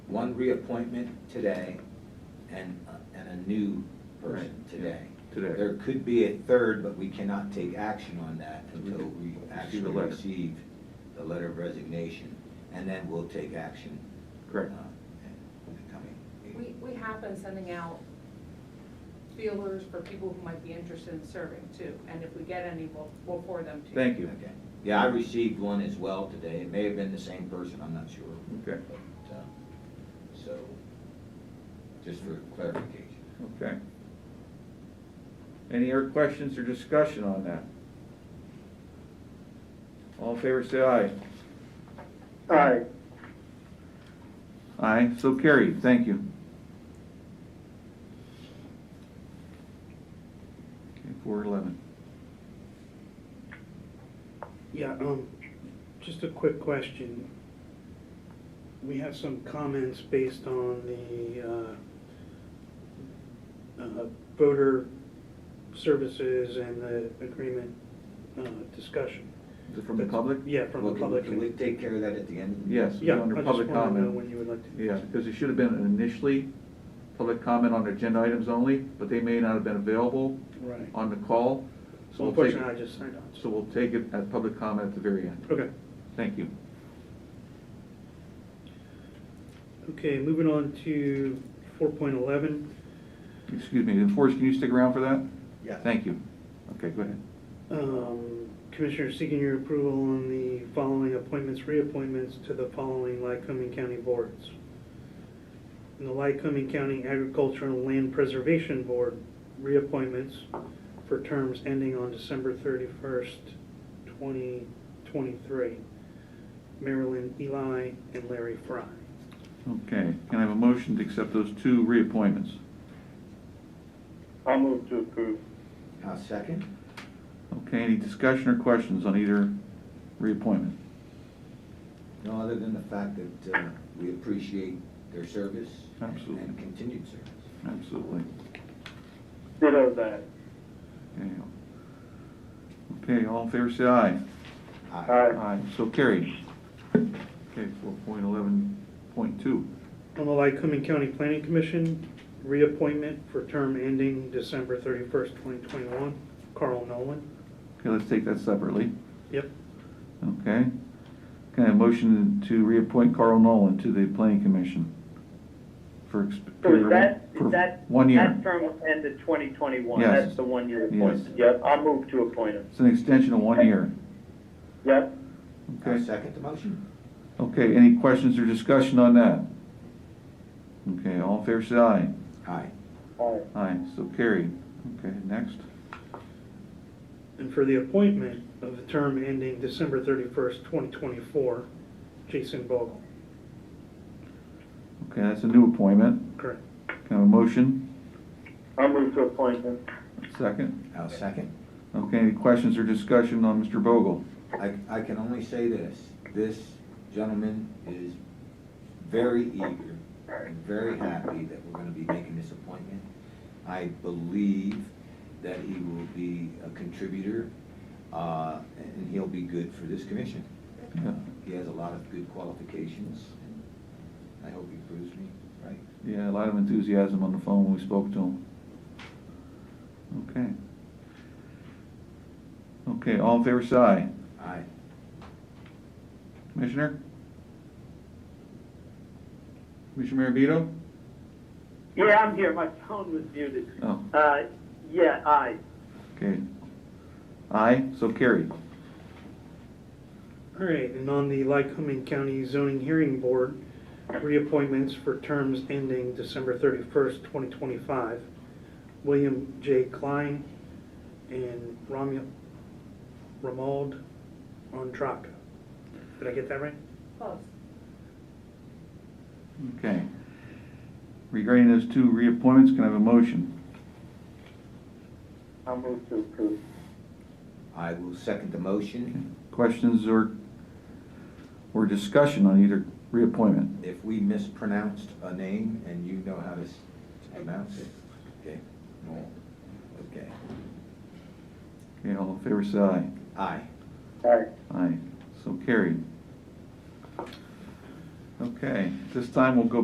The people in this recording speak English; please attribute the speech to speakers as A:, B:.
A: one reappointment today and, uh, and a new person
B: Right, yeah,
A: today.
B: today.
A: There could be a third, but we cannot take action on that until we
B: Receive the
A: actually
B: letter.
A: receive the letter of resignation. And then we'll take action.
B: Correct.
A: uh, in the coming
C: We,
A: meeting.
C: we have been sending out feelers for people who might be interested in serving too, and if we get any, we'll, we'll forward them to you.
B: Thank you.
A: Okay. Yeah, I received one as well today. It may have been the same person, I'm not sure.
B: Okay.
A: But, uh, So, just for clarification.
B: Okay. Any other questions or discussion on that? All in favor, say aye.
D: Aye.
B: Aye, so carried, thank you. Okay, four eleven.
D: Yeah, um, just a quick question. We have some comments based on the, uh, uh, voter services and the agreement, uh, discussion.
B: Is it from the public?
D: Yeah, from
A: Well,
D: the
A: can we-
D: public.
A: Can we take care of that at the end? of the
B: Yes.
A: meeting?
D: Yeah, I
B: Under
D: just
B: public
D: wanna know
B: comment.
D: when you would like to.
B: Yeah, because it should have been initially public comment on agenda items only, but they may not have been available
D: Right.
B: on the call.
D: So
B: So we'll take,
D: unfortunately, I just signed on.
B: so we'll take it at public comment at the very end.
D: Okay.
B: Thank you.
D: Okay, moving on to four point eleven.
B: Excuse me, and Forrest, can you stick around for that?
A: Yeah.
B: Thank you. Okay, go ahead.
D: Um, Commissioner, seeking your approval on the following appointments, reappointments to the following Lycoming County boards. In the Lycoming County Agricultural Land Preservation Board, reappointments for terms ending on December thirty-first, twenty twenty-three. Marilyn Eli and Larry Fry.
B: Okay, can I have a motion to accept those two reappointments?
E: I'll move to approve.
A: I'll second.
B: Okay, any discussion or questions on either reappointment?
A: No, other than the fact that uh, we appreciate their service. and-
B: Absolutely.
A: And continued service.
B: Absolutely.
E: Ditto that.
B: Okay. Okay, all in favor, say aye.
E: Aye.
B: So carried. Okay, four point eleven point two.
D: On the Lycoming County Planning Commission, reappointment for term ending December thirty-first, twenty twenty-one, Carl Nolan.
B: Okay, let's take that separately.
D: Yep.
B: Okay. Can I have a motion to reappoint Carl Nolan to the planning commission? For. ex-
E: So is that,
B: for
E: is that?
B: One year.
E: That term will end in 2021.
B: Yes.
E: That's the one-year
B: Yes.
E: appointment. Yep, I'll move to appoint him.
B: It's an extension of one year.
E: Yep.
A: I'll
B: Okay,
A: second the motion.
B: okay, any questions or discussion on that? Okay, all in favor, say aye.
A: Aye.
E: Aye.
B: Aye, so carried. Okay, next.
D: And for the appointment of the term ending December 31st, 2024, Jason Bogle.
B: Okay, that's a new appointment.
D: Correct.
B: Can I have a motion?
E: I'll move to appoint him.
B: Second.
A: I'll second.
B: Okay, any questions or discussion on Mr. Bogle?
A: I, I can only say this, this gentleman is very eager and very happy that we're gonna be making this appointment. I believe that he will be a contributor, uh, and he'll be good for this commission.
B: Yeah.
A: He has a lot of good qualifications, and I hope he proves me right.
B: Yeah, a lot of enthusiasm on the phone when we spoke to him. Okay. Okay, all in favor, say aye.
A: Aye.
B: Commissioner? Commissioner Maravito?
E: Yeah, I'm here. My phone was muted.
B: Oh,
E: Uh, yeah, aye.
B: okay. Aye, so carried.
D: All right, and on the Lycoming County Zoning Hearing Board, reappointments for terms ending December 31st, 2025, William J. Klein and Ramya- Ramald Andraka. Did I get that right?
C: Close.
B: Okay. Regarding those two reappointments, can I have a motion?
E: I'll move to approve.
A: I will second the motion.
B: Questions or, or discussion on either reappointment?
A: If we mispronounced a name and you know how to s- pronounce it, okay? No. Okay.
B: Okay, all in favor, say aye.
A: Aye.
E: Aye.
B: Aye, so carried. Okay, this time we'll go